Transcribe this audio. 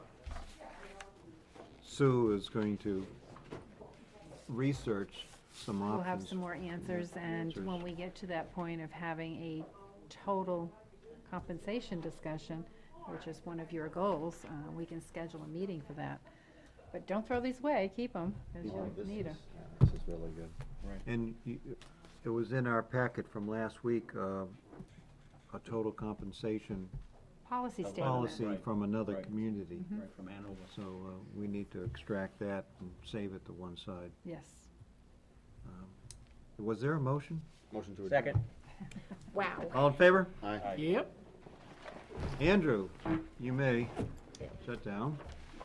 Sue is going to research some options. We'll have some more answers, and when we get to that point of having a total compensation discussion, which is one of your goals, uh, we can schedule a meeting for that. But don't throw these away, keep them, because Well, you'll this need them. is- This is really good. And you- it was in our packet from last week, uh, a total compensation Policy statement. policy Right, from another right. community. Mm-hmm. Right, from Hanover. So uh, we need to extract that and save it to one side. Yes. Um, Was there a motion? Motion to adjourn. Second. Wow. All in favor? Aye. Yep. Andrew, you may shut down.